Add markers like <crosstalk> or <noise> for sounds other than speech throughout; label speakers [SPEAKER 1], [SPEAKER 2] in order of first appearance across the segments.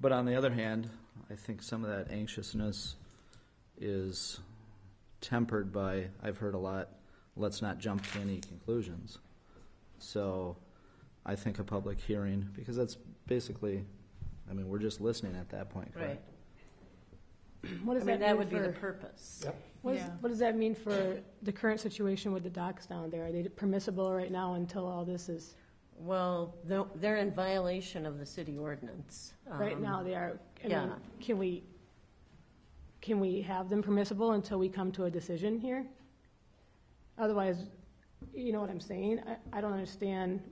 [SPEAKER 1] But on the other hand, I think some of that anxiousness is tempered by, I've heard a lot, let's not jump to any conclusions. So I think a public hearing, because that's basically, I mean, we're just listening at that point,
[SPEAKER 2] Right.
[SPEAKER 1] correct?
[SPEAKER 3] What
[SPEAKER 2] I
[SPEAKER 3] does
[SPEAKER 2] mean,
[SPEAKER 3] that
[SPEAKER 2] that
[SPEAKER 3] mean
[SPEAKER 2] would be the
[SPEAKER 3] for,
[SPEAKER 2] purpose.
[SPEAKER 4] Yep.
[SPEAKER 3] what does,
[SPEAKER 2] yeah.
[SPEAKER 3] what does that mean for the current situation with the docks down there? Are they permissible right now until all this is,
[SPEAKER 2] Well, they're- they're in violation of the city ordinance.
[SPEAKER 3] right
[SPEAKER 2] Um,
[SPEAKER 3] now they are? I mean,
[SPEAKER 2] yeah.
[SPEAKER 3] Can we, can we have them permissible until we come to a decision here? Otherwise, you know what I'm saying? I, I don't understand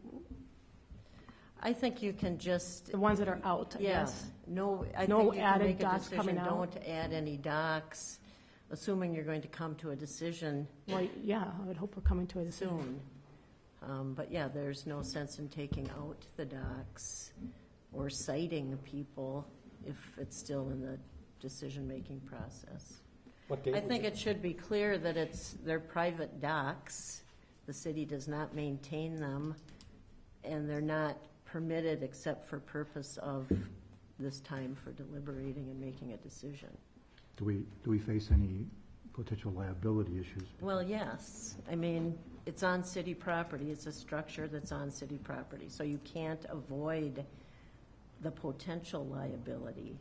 [SPEAKER 2] I think you can just,
[SPEAKER 3] the ones that are out, I guess.
[SPEAKER 2] yes, no, I
[SPEAKER 3] No
[SPEAKER 2] think you can
[SPEAKER 3] added
[SPEAKER 2] make a
[SPEAKER 3] docks
[SPEAKER 2] decision,
[SPEAKER 3] coming out?
[SPEAKER 2] don't add any docks, assuming you're going to come to a decision
[SPEAKER 3] Well, yeah, I would hope we're coming to a decision.
[SPEAKER 2] soon. Um, But yeah, there's no sense in taking out the docks or citing people if it's still in the decision-making process.
[SPEAKER 4] What date
[SPEAKER 2] I
[SPEAKER 4] was
[SPEAKER 2] think
[SPEAKER 4] it?
[SPEAKER 2] it should be clear that it's, they're private docks. The city does not maintain them, and they're not permitted except for purpose of this time for deliberating and making a decision.
[SPEAKER 5] Do we, do we face any potential liability issues?
[SPEAKER 2] Well, yes. I mean, it's on city property. It's a structure that's on city property, so you can't avoid the potential liability.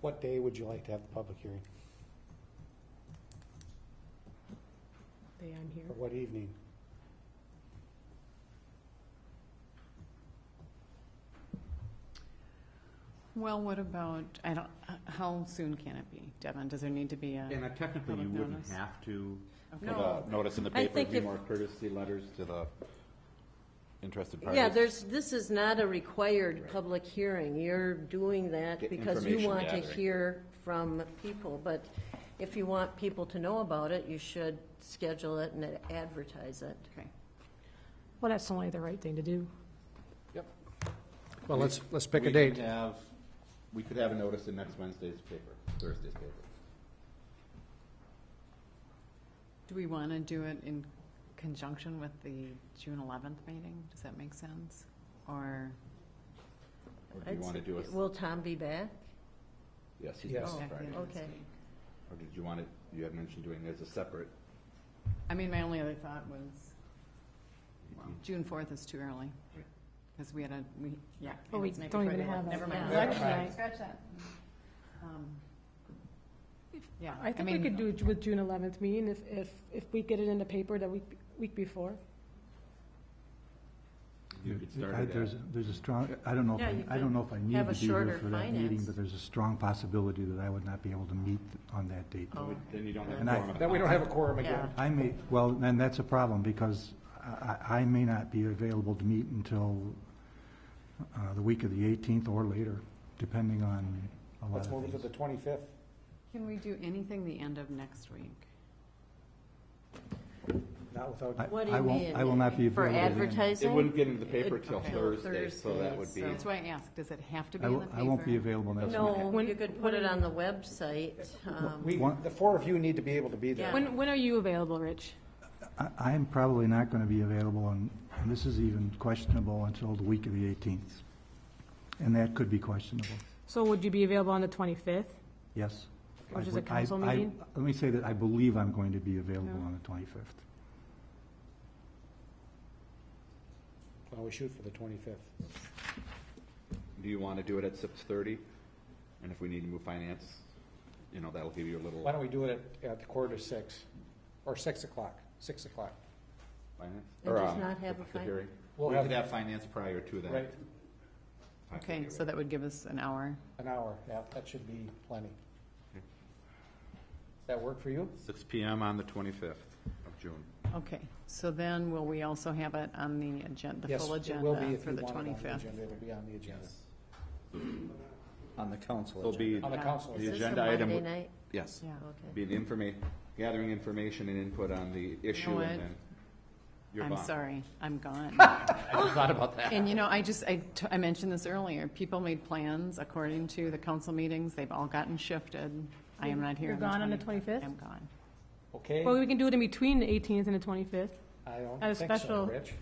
[SPEAKER 4] What day would you like to have the public hearing?
[SPEAKER 3] They, I'm here.
[SPEAKER 4] Or what evening?
[SPEAKER 6] Well, what about, I don't, h- how soon can it be, Devin? Does there need to be a?
[SPEAKER 7] And technically, you
[SPEAKER 6] Public
[SPEAKER 7] wouldn't
[SPEAKER 6] notice.
[SPEAKER 7] have to put
[SPEAKER 2] No.
[SPEAKER 7] a notice in the
[SPEAKER 2] I
[SPEAKER 7] paper,
[SPEAKER 2] think
[SPEAKER 7] it'd be
[SPEAKER 2] if-
[SPEAKER 7] more courtesy letters to the interested parties.
[SPEAKER 2] Yeah, there's, this is not a required public hearing. You're doing that
[SPEAKER 7] Get
[SPEAKER 2] because you
[SPEAKER 7] information
[SPEAKER 2] want to
[SPEAKER 7] gathering.
[SPEAKER 2] hear from people. But if you want people to know about it, you should schedule it and advertise it.
[SPEAKER 6] Okay.
[SPEAKER 3] Well, that's only the right thing to do.
[SPEAKER 4] Well, let's, let's pick a
[SPEAKER 7] We could
[SPEAKER 4] date.
[SPEAKER 7] have- We could have a notice in next Wednesday's paper, Thursday's paper.
[SPEAKER 6] Do we want to do it in conjunction with the June eleventh meeting? Does that make sense? Or,
[SPEAKER 7] Or do you
[SPEAKER 2] I'd
[SPEAKER 7] want to
[SPEAKER 2] say-
[SPEAKER 7] do a,
[SPEAKER 2] Will Tom be back?
[SPEAKER 7] yes, he's
[SPEAKER 4] Yes.
[SPEAKER 7] gone
[SPEAKER 6] Back
[SPEAKER 7] Friday.
[SPEAKER 6] in.
[SPEAKER 2] Okay.
[SPEAKER 7] Or did you want to, you had mentioned doing it as a separate,
[SPEAKER 6] I mean, my only other thought was,
[SPEAKER 5] Mm-hmm.
[SPEAKER 6] June fourth is too early. Because we had a, we, yeah.
[SPEAKER 3] Oh,
[SPEAKER 6] and
[SPEAKER 3] we
[SPEAKER 6] it's maybe
[SPEAKER 3] don't even
[SPEAKER 6] Friday,
[SPEAKER 3] have a-
[SPEAKER 6] Never mind.
[SPEAKER 3] Yeah. Election night.
[SPEAKER 6] Scratch that. Um, Yeah.
[SPEAKER 3] I think we
[SPEAKER 6] mean, uh,
[SPEAKER 3] could do it with June eleventh meeting if, if, if we get it in the paper the week, week before.
[SPEAKER 7] you could start
[SPEAKER 5] I-
[SPEAKER 7] it
[SPEAKER 5] There's,
[SPEAKER 7] at,
[SPEAKER 5] there's a strong, I don't know, if
[SPEAKER 2] Yeah, you
[SPEAKER 5] I- I don't know if I
[SPEAKER 2] could
[SPEAKER 5] need
[SPEAKER 2] have a
[SPEAKER 5] to be
[SPEAKER 2] shorter
[SPEAKER 5] here for that meeting,
[SPEAKER 2] finance.
[SPEAKER 5] but there's a strong possibility that I would not be able to meet on that date.
[SPEAKER 2] Oh,
[SPEAKER 7] then you don't have.
[SPEAKER 5] And I-
[SPEAKER 7] quorum.
[SPEAKER 4] Then we don't have a quorum
[SPEAKER 2] yeah.
[SPEAKER 4] again.
[SPEAKER 5] I may, well, then that's a problem, because I, I I may not be available to meet until uh, the week of the 18th or later, depending on a lot
[SPEAKER 4] Let's
[SPEAKER 5] of
[SPEAKER 4] move it to
[SPEAKER 5] things.
[SPEAKER 4] the twenty-fifth.
[SPEAKER 6] Can we do anything the end of next week?
[SPEAKER 4] Not without,
[SPEAKER 5] I-
[SPEAKER 2] What do
[SPEAKER 5] I
[SPEAKER 2] you
[SPEAKER 5] won't-
[SPEAKER 2] mean?
[SPEAKER 5] I will not be
[SPEAKER 2] For
[SPEAKER 5] available then.
[SPEAKER 7] It
[SPEAKER 2] advertising?
[SPEAKER 7] wouldn't get into the paper
[SPEAKER 2] It-
[SPEAKER 7] till
[SPEAKER 2] okay.
[SPEAKER 7] Thursday, so that would
[SPEAKER 2] Thursday,
[SPEAKER 7] be,
[SPEAKER 6] That's why I asked, does it have to be
[SPEAKER 5] I
[SPEAKER 6] in the
[SPEAKER 5] will-
[SPEAKER 6] paper?
[SPEAKER 5] I won't be available next week.
[SPEAKER 2] No,
[SPEAKER 3] When-
[SPEAKER 2] you could put it on the website. um,
[SPEAKER 4] we,
[SPEAKER 5] One-
[SPEAKER 4] the four of you need to be able to be
[SPEAKER 2] Yeah.
[SPEAKER 4] there.
[SPEAKER 3] When, when are you available, Rich?
[SPEAKER 5] I- I am probably not going to be available, and and this is even questionable until the week of the 18th. And that could be questionable,
[SPEAKER 3] So would you be available on the twenty-fifth?
[SPEAKER 5] yes.
[SPEAKER 3] Which is a
[SPEAKER 5] I- I-
[SPEAKER 3] council
[SPEAKER 5] I-
[SPEAKER 3] meeting?
[SPEAKER 5] Let me say that I believe I'm going to be available on the 25th.
[SPEAKER 4] Well, we shoot for the twenty-fifth.
[SPEAKER 7] do you want to do it at six-thirty? And if we need to move finance, you know, that'll give you a little
[SPEAKER 4] Why don't we do it at, at quarter to six, or six o'clock, six o'clock?
[SPEAKER 7] finance.
[SPEAKER 2] And
[SPEAKER 7] or,
[SPEAKER 2] does
[SPEAKER 7] um,
[SPEAKER 2] not have
[SPEAKER 7] the-
[SPEAKER 2] a
[SPEAKER 7] the
[SPEAKER 2] fin-
[SPEAKER 7] hearing.
[SPEAKER 4] We'll
[SPEAKER 7] We
[SPEAKER 4] have-
[SPEAKER 7] could have finance prior to that.
[SPEAKER 4] Right,
[SPEAKER 6] Okay, so that would give us an hour.
[SPEAKER 4] an hour, yeah, that should be plenty. Does that work for you?
[SPEAKER 7] Six PM on the twenty-fifth of June.
[SPEAKER 6] Okay, so then will we also have it on the agenda, the
[SPEAKER 4] Yes,
[SPEAKER 6] full
[SPEAKER 4] it will be
[SPEAKER 6] agenda
[SPEAKER 4] if
[SPEAKER 6] for
[SPEAKER 4] you want
[SPEAKER 6] the
[SPEAKER 4] it on
[SPEAKER 6] twenty-fifth?
[SPEAKER 4] agenda, It'll be on the agenda,
[SPEAKER 1] On the council
[SPEAKER 7] There'll be,
[SPEAKER 4] on the
[SPEAKER 6] Yeah.
[SPEAKER 4] council.
[SPEAKER 7] The
[SPEAKER 2] Is this a
[SPEAKER 7] agenda item
[SPEAKER 2] Monday
[SPEAKER 7] would-
[SPEAKER 2] night?
[SPEAKER 7] yes,
[SPEAKER 6] Yeah,
[SPEAKER 2] Okay.
[SPEAKER 7] be an informa, gathering information and input on the issue
[SPEAKER 6] what?
[SPEAKER 7] and then. you're
[SPEAKER 6] I'm
[SPEAKER 7] gone.
[SPEAKER 6] sorry,
[SPEAKER 4] <laughs>
[SPEAKER 6] I'm gone.
[SPEAKER 7] I just thought about that.
[SPEAKER 6] And you know, I just, I, t- I mentioned this earlier, people made plans according to the council meetings, they've all gotten shifted. I am not here
[SPEAKER 3] You're
[SPEAKER 6] on the
[SPEAKER 3] gone on the
[SPEAKER 6] 25th.
[SPEAKER 3] 25th?
[SPEAKER 6] I'm gone.
[SPEAKER 4] Okay,
[SPEAKER 3] Well, we can do it in between the eighteenth and the twenty-fifth.
[SPEAKER 4] I don't
[SPEAKER 3] at a
[SPEAKER 4] think so,
[SPEAKER 3] special-
[SPEAKER 4] Rich.